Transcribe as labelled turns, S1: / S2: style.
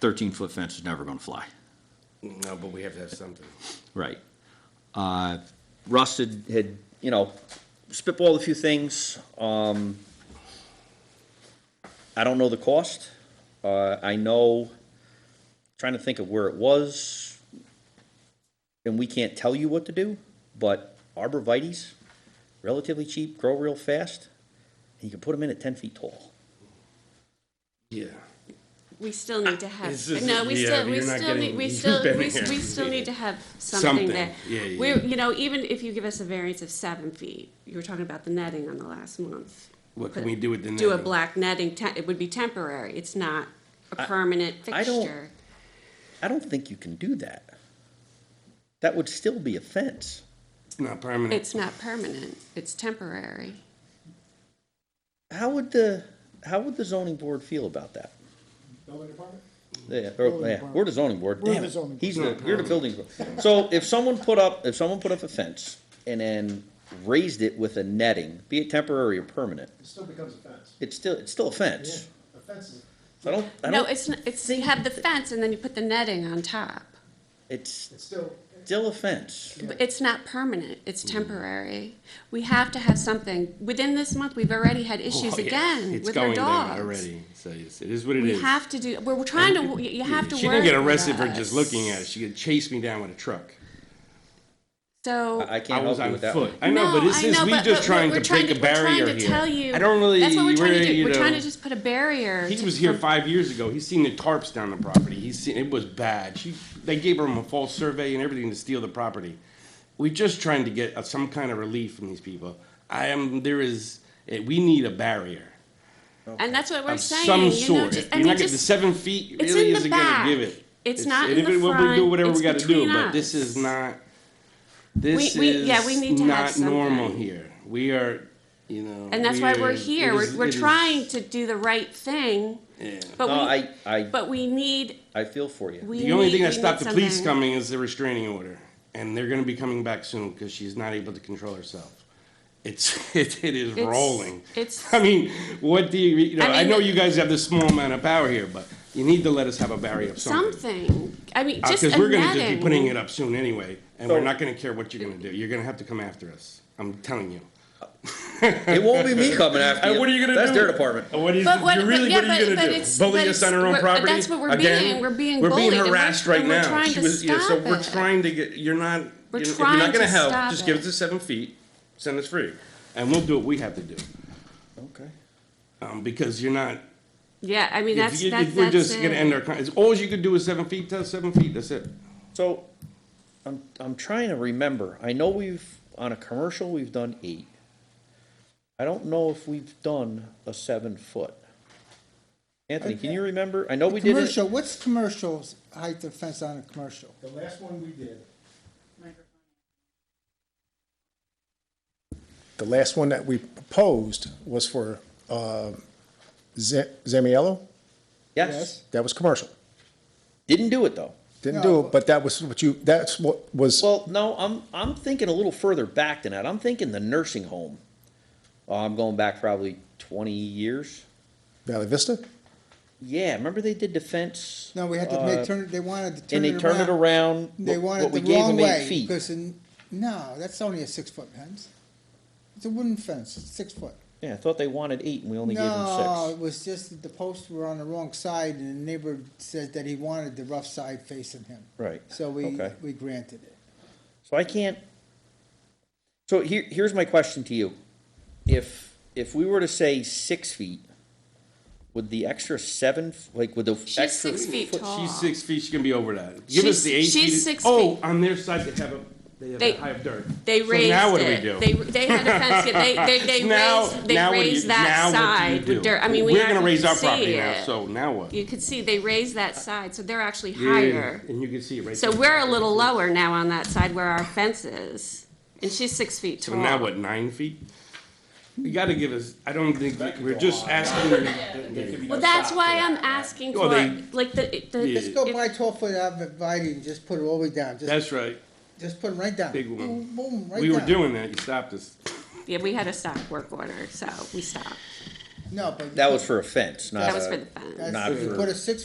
S1: thirteen foot fence is never gonna fly,
S2: No, but we have to have something.
S1: right? Uh, Russ had, had, you know, spitballed a few things, um, I don't know the cost, uh, I know, trying to think of where it was, and we can't tell you what to do, but arborvitae's, relatively cheap, grow real fast, and you can put them in at ten feet tall.
S2: Yeah.
S3: We still need to have,
S2: Ah, This is-
S3: no, we
S2: yeah,
S3: still, we
S2: you're not
S3: still,
S2: getting-
S3: need- we
S2: you've
S3: still,
S2: been
S3: we s- we
S2: here.
S3: still need to have
S2: Something,
S3: something that.
S2: yeah, yeah,
S3: We're,
S2: yeah.
S3: you know, even if you give us a variance of seven feet, you were talking about the netting on the last month.
S2: What can we do with the
S3: Do a
S2: netting?
S3: black netting, te- it would be temporary, it's not a permanent
S1: I don't-
S3: fixture.
S1: I don't think you can do that. That would still be a fence.
S2: It's not permanent.
S3: It's not permanent, it's temporary.
S1: How would the, how would the zoning board feel about that?
S4: Building department?
S1: Yeah, or, yeah, we're the zoning board,
S4: We're
S1: damn
S4: the
S1: it,
S4: zoning
S1: he's the, you're the building. board. So if someone put up, if someone put up a fence and then raised it with a netting, be it temporary or permanent,
S4: It still becomes a fence.
S1: it's still, it's still a fence.
S4: A fence is,
S1: So I don't, I
S3: No,
S1: don't,
S3: it's, n- it's, you have the fence and then you put the netting on top.
S1: it's
S4: it's still,
S1: still a fence.
S3: But It's not permanent, it's
S2: Mm-hmm.
S3: temporary. We have to have something, within this month, we've already had issues
S2: Oh, yeah.
S3: again
S2: It's
S3: with our
S2: going there
S3: dogs.
S2: already. So it's- it is what it
S3: We
S2: is.
S3: have to do, we're trying to, you- you have to work.
S2: She didn't get
S3: with
S2: arrested for just
S3: us.
S2: looking at it. She chased me down with a truck.
S1: I
S3: So,
S1: can't
S2: I
S1: help
S2: was
S1: you
S2: on
S1: with that
S2: foot.
S1: one.
S2: I know,
S3: No,
S2: but it's
S3: I
S2: just
S3: know,
S2: we
S3: but-
S2: just
S3: but
S2: trying
S3: we're
S2: to
S3: trying
S2: break
S3: to-
S2: a
S3: we're trying
S2: barrier
S3: to
S2: here.
S3: tell you-
S2: I don't really.
S3: that's what we're trying to do,
S2: you
S3: we're trying
S2: know,
S3: to just put a barrier.
S2: He
S3: to-
S2: was here five years ago. He's seen the tarps down the property. He's seen it was bad. She, they gave him a false survey and everything to steal the property. We're just trying to get uh, some kind of relief from these people. I am. There is. eh, We need a barrier
S3: And that's what we're
S2: of
S3: saying,
S2: some
S3: you know,
S2: sort.
S3: just,
S2: If
S3: I
S2: you're
S3: mean,
S2: not getting the
S3: just,
S2: seven feet.
S3: it's
S2: really
S3: in the
S2: isn't
S3: back.
S2: gonna give it.
S3: It's not
S2: and
S3: in
S2: if
S3: the
S2: it- We do
S3: front,
S2: whatever
S3: it's
S2: we got to do,
S3: between
S2: but this
S3: us.
S2: is not. This
S3: We- we-
S2: is
S3: yeah, we need to have
S2: not normal
S3: something.
S2: here. We are, you know.
S3: and that's why we're
S2: it
S3: here,
S2: is-
S3: we're, we're
S2: it is-
S3: trying to do the right thing.
S1: No, I,
S3: But we,
S1: I,
S3: but we need,
S1: I feel for you.
S3: we need,
S2: The only thing
S3: we
S2: that
S3: need
S2: stopped the police
S3: something.
S2: coming is the restraining order, and they're gonna be coming back soon, because she's not able to control herself. It's, it, it is
S3: It's-
S2: rolling.
S3: it's-
S2: I mean, what do you, you know,
S3: I mean,
S2: I know
S3: the-
S2: you guys have this small amount of power here, but you need to let us have a barrier of something.
S3: Something, I mean, just a
S2: Because Uh, we're gonna just be
S3: netting.
S2: putting it up soon anyway, and we're
S1: So-
S2: not gonna care what you're gonna do, you're gonna have to come after us, I'm telling you.
S1: It won't be me coming after you.
S2: And Uh, what are you gonna do?
S1: That's their department.
S2: And What is,
S3: But what-
S2: you really,
S3: but yeah,
S2: what are you
S3: but-
S2: gonna
S3: but
S2: do?
S3: it's-
S2: Bully
S3: but
S2: us
S3: it's-
S2: on our own
S3: we're- but
S2: property?
S3: that's what we're
S2: Again?
S3: being- we're being bullied,
S2: We're
S3: and
S2: being
S3: we're-
S2: harassed right
S3: and we're
S2: now.
S3: trying
S2: She
S3: to
S2: was- yeah, So
S3: stop
S2: we're
S3: it.
S2: trying to get, you're not,
S3: We're
S2: you know, if you're not
S3: trying
S2: gonna
S3: to
S2: help,
S3: stop
S2: just give us
S3: it.
S2: the seven feet, send us free. And we'll do what we have to do,
S1: Okay.
S2: um, because you're not,
S3: Yeah, I mean,
S2: if
S3: that's,
S2: you-
S3: that's,
S2: if we're
S3: that's
S2: just gonna end
S3: it.
S2: our, con- it's, all you could do is seven feet, tell seven feet, that's it.
S1: So, I'm, I'm trying to remember, I know we've, on a commercial, we've done eight. I don't know if we've done a seven foot. Anthony, can you remember? I know we did it,
S5: Commercial, what's commercial's height of fence on a commercial?
S4: the last one we did. The last one that we proposed was for, uh, Za- Zamiello,
S1: yes,
S4: that was commercial.
S1: didn't do it though.
S4: Didn't do it, but that was what you, that's what was,
S1: Well, no, I'm, I'm thinking a little further back than that, I'm thinking the nursing home. Oh, I'm going back probably twenty years.
S4: Valley Vista?
S1: Yeah, remember they did defense?
S5: No, we had to
S1: uh,
S5: make, turn, they wanted to turn
S1: And
S5: it
S1: they
S5: around.
S1: turned it around.
S5: They
S1: but-
S5: wanted
S1: but we
S5: the
S1: gave
S5: wrong
S1: them eight
S5: way,
S1: feet.
S5: because in, no, that's only a six-foot fence. It's a wooden fence, it's six foot.
S1: Yeah, I thought they wanted eight and we only gave
S5: No,
S1: them
S5: it was just that the posts were on the wrong side, and the neighbor said that he wanted the rough side facing him.
S1: Right,
S5: So we,
S1: okay.
S5: we granted it.
S1: six. So I can't. So here, here's my question to you. If, if we were to say six feet, would the extra seven, f- like would the extra?
S3: She's six feet tall.
S2: She's six feet, she's gonna be over that. Give us
S3: She's-
S2: the eight feet.
S3: she's six
S2: Oh,
S3: feet.
S2: on their side, they have a, they have
S3: They-
S2: a high of dirt.
S3: They
S2: So
S3: raised
S2: now what do we
S3: it.
S2: do?
S3: They, they had a fence, yeah, they, they, they
S2: Now-
S3: raised, they
S2: now what do
S3: raised
S2: you-
S3: that
S2: now what do you
S3: side with
S2: do?
S3: dirt. I mean, we
S2: We're gonna
S3: actually
S2: raise our
S3: could see
S2: property now,
S3: it.
S2: so now what?
S3: You could see they raised that side, so they're actually
S2: Yeah,
S3: higher.
S2: And you can see it right
S3: So
S2: there.
S3: we're a little lower now on that side where our fence is, and she's six feet
S2: So now
S3: tall.
S2: what, nine feet? You gotta give us, I don't think, we're just asking.
S3: Well, that's why I'm asking
S2: Well,
S3: for,
S2: they-
S3: like, the,
S2: Yeah.
S3: the,
S5: Just go buy twelve-foot abreviate and just put it all the way down, just,
S2: That's right,
S5: just put it right down.
S2: Big one.
S5: Boom, Boom, right down.
S2: we were doing that, you stopped us.
S3: yeah, we had a stop work order, so we stopped.
S5: No, but.
S1: That was for a fence, not
S3: That was for
S1: a,
S3: the fence.
S5: That's-
S1: not
S5: You
S1: for-
S5: put a six